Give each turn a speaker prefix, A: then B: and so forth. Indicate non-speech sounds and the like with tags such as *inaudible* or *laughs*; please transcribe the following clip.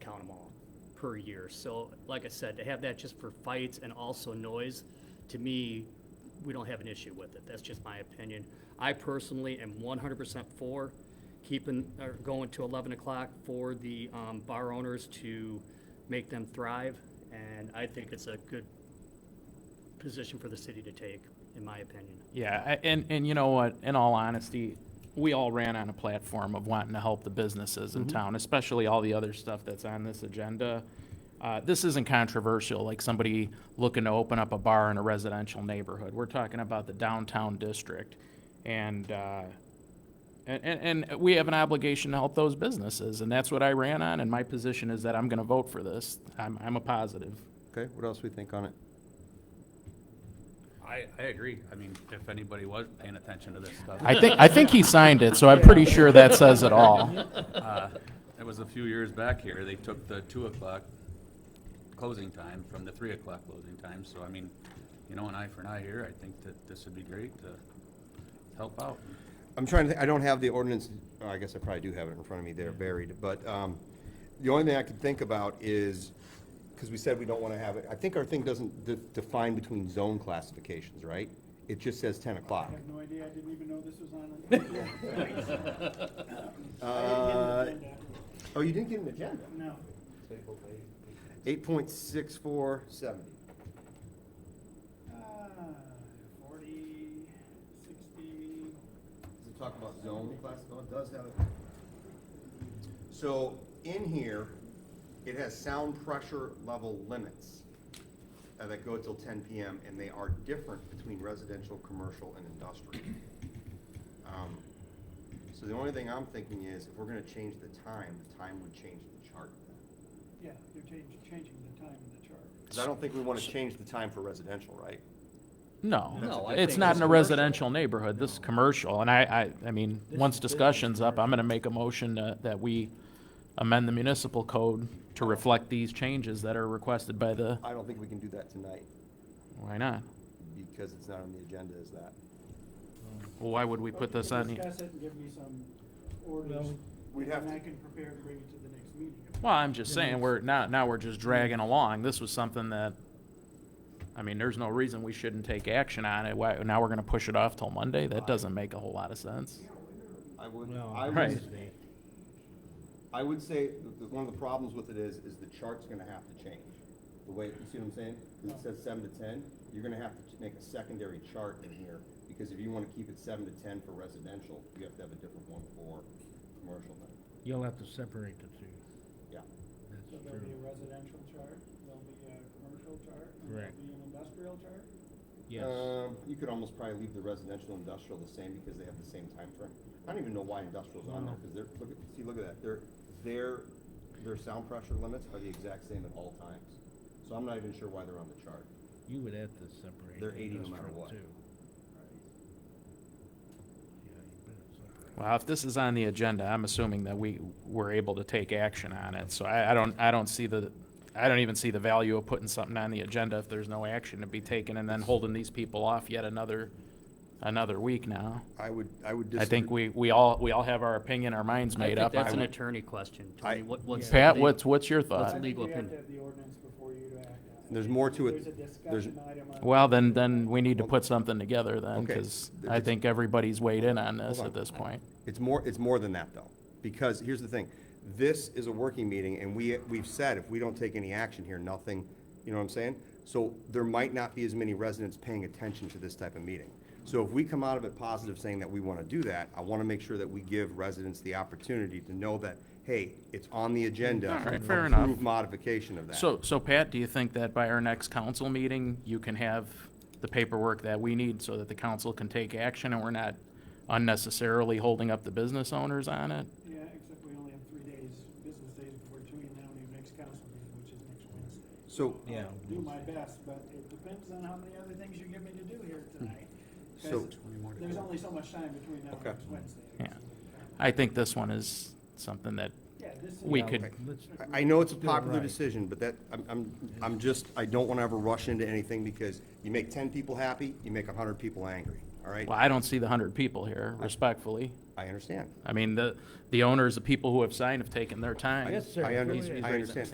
A: per year. So, like I said, to have that just for fights and also noise, to me, we don't have an issue with it. That's just my opinion. I personally am one hundred percent for keeping, or going to eleven o'clock for the, um, bar owners to make them thrive. And I think it's a good position for the city to take, in my opinion.
B: Yeah, I- and, and you know what, in all honesty, we all ran on a platform of wanting to help the businesses in town, especially all the other stuff that's on this agenda. Uh, this isn't controversial, like somebody looking to open up a bar in a residential neighborhood. We're talking about the downtown district. And, uh, and, and, and we have an obligation to help those businesses, and that's what I ran on, and my position is that I'm gonna vote for this. I'm, I'm a positive.
C: Okay, what else we think on it?
D: I, I agree. I mean, if anybody was paying attention to this stuff,
B: I think, I think he signed it, so I'm pretty sure that says it all.
D: uh, it was a few years back here, they took the two o'clock closing time from the three o'clock closing time, so I mean, you know, an eye for an eye here, I think that this would be great to help out.
C: I'm trying to, think I don't have the ordinance, oh, I guess I probably do have it in front of me, they're buried, but, um, the only thing I could think about is, because we said we don't want to have it, I think our thing doesn't de- define between zone classifications, right? It just says ten o'clock.
E: I have no idea, I didn't even know this was on. *laughs*
C: Uh, oh, you didn't get an agenda?
E: No,
C: Eight point six four seventy.
E: Ah, forty, sixty,
C: Does it talk about zone classification? It does have it. So in here, it has sound pressure level limits uh, that go till ten PM, and they are different between residential, commercial, and industrial. Um, So the only thing I'm thinking is, if we're gonna change the time, the time would change the chart.
E: yeah, you're changing, changing the time in the chart.
C: Because I don't think we wanna change the time for residential, right?
B: No,
A: No, I
B: it's
A: think
B: not
A: it's
B: in a
A: commercial.
B: residential neighborhood, this is commercial, and I, I, I mean,
A: This
B: once
A: is business
B: discussion's up, I'm gonna make a motion to- that we amend the municipal code to reflect these changes that are requested by the,
C: I don't think we can do that tonight,
B: why not?
C: because it's not on the agenda, is that?
B: Well, Why would we put
E: Okay,
B: this on? here?
E: Discuss it and give me some orders,
C: We'd have
E: and
C: to-
E: I can prepare and bring it to the next meeting.
B: Well, I'm just saying, we're, now, now we're just dragging along, this was something that, I mean, there's no reason we shouldn't take action on it, why, now we're gonna push it off till Monday, that doesn't make a whole lot of sense.
C: I would,
F: No,
C: I
B: Right.
C: would,
F: Wednesday.
C: I would say that the- one of the problems with it is, is the chart's gonna have to change. The way, you see what I'm saying? 'Cause it says seven to ten, you're gonna have to ch- make a secondary chart in here, because if you wanna keep it seven to ten for residential, you have to have a different one for commercial then.
F: You'll have to separate the two.
C: Yeah.
E: So
F: That's
E: there'll be a
F: true.
E: residential chart, there'll be a commercial chart, and
F: Correct.
E: there'll be an industrial chart.
F: Yes.
C: Um, you could almost probably leave the residential and industrial the same, because they have the same time frame. I don't even know why industrial's on there, because they're, look at, see, look at that, their, their, their sound pressure limits are the exact same at all times. So I'm not even sure why they're on the chart.
F: You would have to separate.
C: They're
F: the
C: 80 no matter
F: industrial
C: what.
F: too.
E: Right.
F: Yeah, you better separate.
B: Well, if this is on the agenda, I'm assuming that we were able to take action on it, so I, I don't, I don't see the, I don't even see the value of putting something on the agenda if there's no action to be taken and then holding these people off yet another, another week now.
C: I would, I would
B: I think we, we all, we all have our opinion, our minds
A: I
B: made
A: think
B: up. I
A: that's an
B: would-
A: attorney question.
C: I-
A: Tony, what, what's?
B: Pat,
A: the-
B: what's, what's your
A: What's
E: I
B: thought?
E: think
A: legal
E: we have to
A: opinion.
E: have the ordinance before you to act on it.
C: There's more to it.
E: There's a
C: There's-
E: discussion item on.
B: Well, then, then we need to put something together then,
C: Okay.
B: because I think everybody's weighed in on this
C: Hold on.
B: at this point.
C: It's more, it's more than that, though, because here's the thing, this is a working meeting, and we, we've said if we don't take any action here, nothing, you know what I'm saying? So there might not be as many residents paying attention to this type of meeting. So if we come out of it positive saying that we want to do that, I want to make sure that we give residents the opportunity to know that, hey, it's on the agenda.
B: All right, fair enough.
C: Approve modification of that.
B: So, so Pat, do you think that by our next council meeting, you can have the paperwork that we need so that the council can take action and we're not unnecessarily holding up the business owners on it?
E: Yeah, except we only have three days, business days before Tuesday, and now we have next council meeting, which is next Wednesday.
C: So,
F: Yeah.
E: I'll Do my best, but it depends on how many other things you give me to do here tonight.
C: Hmm. So-
E: 'cause There's only so much time between now and
C: Okay.
E: next Wednesday.
B: Yeah. I think this one is something that,
E: Yeah, this is.
B: We could-
F: Let's-
C: I- I know it's a
F: Do it
C: popular
F: right.
C: decision, but that, I'm, I'm, I'm just, I don't want to ever rush into anything because you make ten people happy, you make a hundred people angry, all right?
B: well, I don't see the hundred people here, respectfully.
C: I understand.
B: I mean, the, the owners, the people who have signed have taken their time.
F: Yes, sir.
C: I
B: He's-
C: under-
B: he's
C: I
B: raising-
C: understand.